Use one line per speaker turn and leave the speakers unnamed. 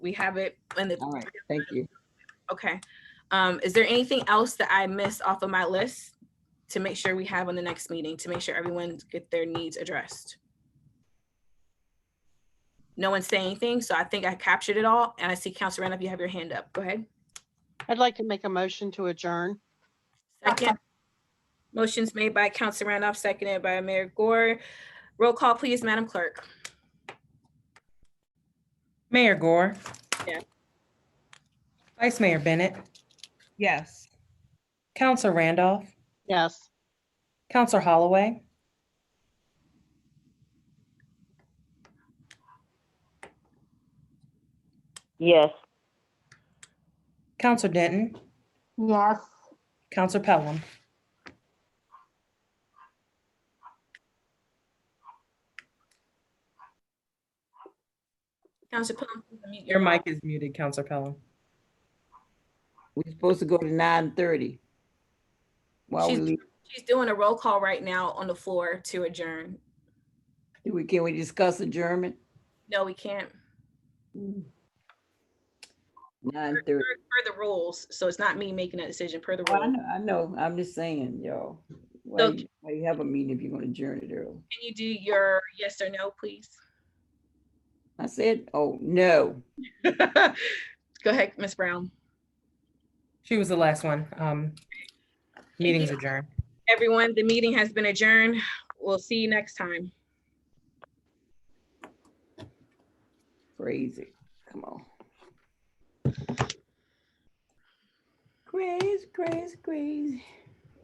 We have it in the,
All right, thank you.
okay. Um, is there anything else that I missed off of my list to make sure we have on the next meeting, to make sure everyone get their needs addressed? No one's saying anything, so I think I captured it all, and I see Counselor Randolph, you have your hand up. Go ahead.
I'd like to make a motion to adjourn.
Second. Motion's made by Counselor Randolph, seconded by Mayor Gore. Roll call, please, Madam Clerk.
Mayor Gore.
Yes.
Vice Mayor Bennett,
Yes.
Counselor Randolph,
Yes.
Counselor Holloway,
Yes.
Counselor Denton,
Yes.
Counselor Pelham.
Counselor Plum, please unmute your
Your
mic.
mic is muted, Counselor Pelham.
We're supposed to go to nine thirty. While we
She's-
leave,
She's doing a roll call right now on the floor to adjourn.
Do we- can we discuss adjournment?
No, we can't.
Nine
Per
thirty.
per the rules, so it's not me making that decision per the
Oh, I
rule.
know, I know, I'm just saying, y'all. Why
So-
you why you have a meeting if you're gonna adjourn it early?
Can you do your yes or no, please?
I said, oh, no.
Go ahead, Ms. Brown.
She was the last one. Um, meeting's adjourned.
Everyone, the meeting has been adjourned. We'll see you next time.
Crazy. Come on. Crazy, crazy, crazy.